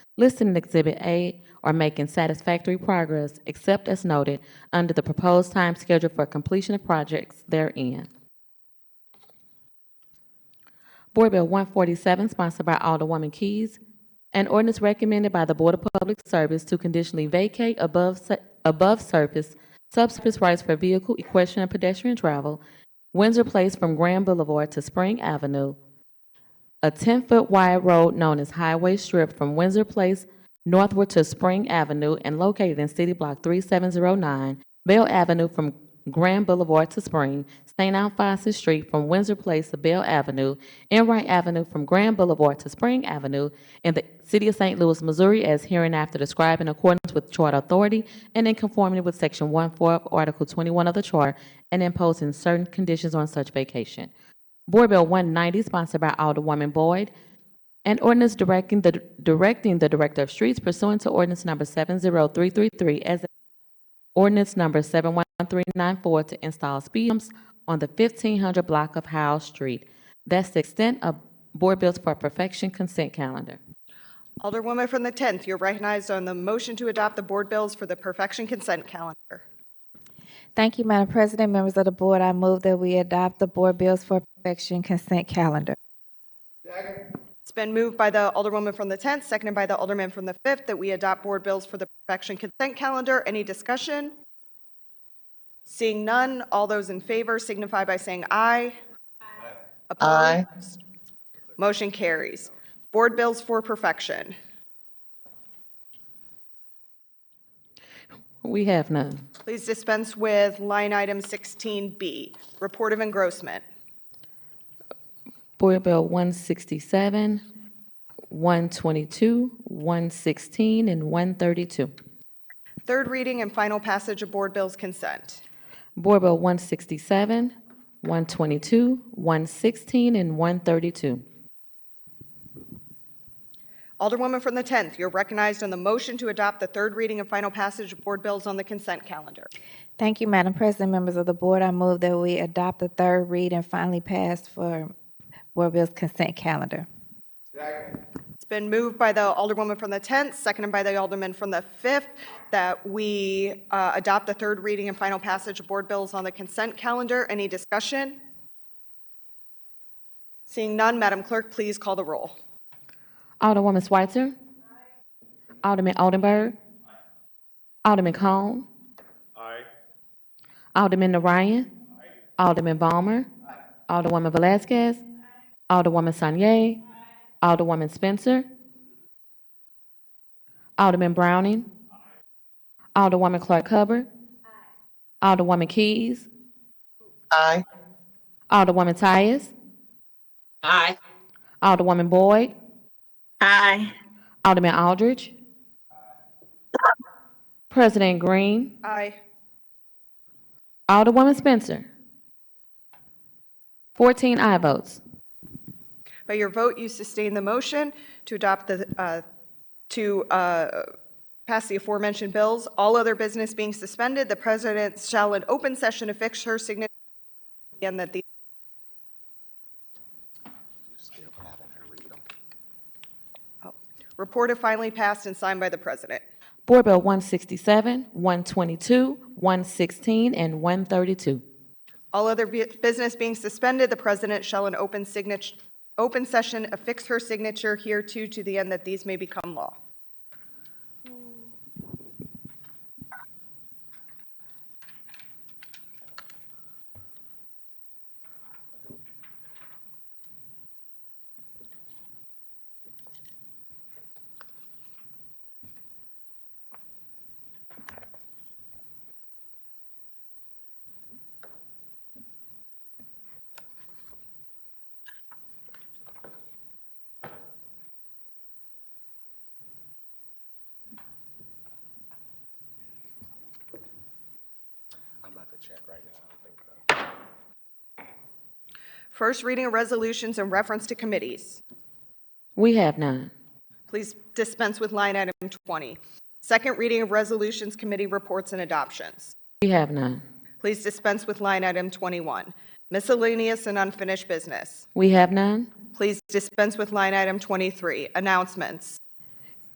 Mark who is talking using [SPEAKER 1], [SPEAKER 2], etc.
[SPEAKER 1] listed in Exhibit A are making satisfactory progress, except as noted under the proposed time schedule for completion of projects therein. Board Bill 147, sponsored by Alderwoman Keys, an ordinance recommended by the Board of Public Service to conditionally vacate above, su- above surface, subsurface rights for vehicle, equestrian, and pedestrian travel, Windsor Place from Grand Boulevard to Spring Avenue, a 10-foot wide road known as Highway Strip from Windsor Place northward to Spring Avenue and located in City Block 3709, Bell Avenue from Grand Boulevard to Spring, St. Alphonsus Street from Windsor Place to Bell Avenue, Enright Avenue from Grand Boulevard to Spring Avenue, in the City of St. Louis, Missouri, as hereinafter described in accordance with Charter Authority and in conformity with Section 1-4 of Article 21 of the Charter, and imposing certain conditions on such vacation. Board Bill 190, sponsored by Alderwoman Boyd, an ordinance directing the, directing the Director of Streets pursuant to ordinance number 70333 as ordinance number 71394 to install speed bumps on the 1500 block of Howell Street. That's the extent of Board Bills for Perfection consent calendar.
[SPEAKER 2] Alderwoman from the 10th, you're recognized on the motion to adopt the board bills for the perfection consent calendar.
[SPEAKER 3] Thank you, Madam President. Members of the board, I move that we adopt the board bills for perfection consent calendar.
[SPEAKER 2] It's been moved by the Alderwoman from the 10th, seconded by the Alderman from the 5th, that we adopt board bills for the perfection consent calendar. Any discussion? Seeing none, all those in favor signify by saying aye. Aye. Opposed? Motion carries. Board bills for perfection.
[SPEAKER 1] We have none.
[SPEAKER 2] Please dispense with line item 16B, report of engrossment.
[SPEAKER 1] Board Bill 167, 122, 116, and 132.
[SPEAKER 2] Third reading and final passage of board bills consent.
[SPEAKER 1] Board Bill 167, 122, 116, and 132.
[SPEAKER 2] Alderwoman from the 10th, you're recognized on the motion to adopt the third reading and final passage of board bills on the consent calendar.
[SPEAKER 3] Thank you, Madam President. Members of the board, I move that we adopt the third read and finally pass for board bills consent calendar.
[SPEAKER 2] It's been moved by the Alderwoman from the 10th, seconded by the Alderman from the 5th, that we uh, adopt the third reading and final passage of board bills on the consent calendar. Any discussion? Seeing none, Madam Clerk, please call the roll.
[SPEAKER 1] Alderwoman Switzer. Alderman Oldenburg. Alderman Cone. Alderman Orion. Alderman Balmer. Alderwoman Velazquez. Alderwoman Sanye. Alderwoman Spencer. Alderman Browning. Alderwoman Clark Hubbard. Alderwoman Keys.
[SPEAKER 4] Aye.
[SPEAKER 1] Alderwoman Tyus.
[SPEAKER 4] Aye.
[SPEAKER 1] Alderwoman Boyd.
[SPEAKER 4] Aye.
[SPEAKER 1] Alderman Aldridge. President Green.
[SPEAKER 2] Aye.
[SPEAKER 1] Alderwoman Spencer. 14 aye votes.
[SPEAKER 2] By your vote, you sustain the motion to adopt the, uh, to uh, pass the aforementioned bills. All other business being suspended, the president shall in open session affix her signature and that the Oh. report if finally passed and signed by the president.
[SPEAKER 1] Board Bill 167, 122, 116, and 132.
[SPEAKER 2] All other bu- business being suspended, the president shall in open signature, open session affix her signature here too to the end that these may become law. First reading of resolutions in reference to committees.
[SPEAKER 1] We have none.
[SPEAKER 2] Please dispense with line item 20. Second reading of resolutions, committee reports and adoptions.
[SPEAKER 1] We have none.
[SPEAKER 2] Please dispense with line item 21. Miscellaneous and unfinished business.
[SPEAKER 1] We have none.
[SPEAKER 2] Please dispense with line item 23. Announcements.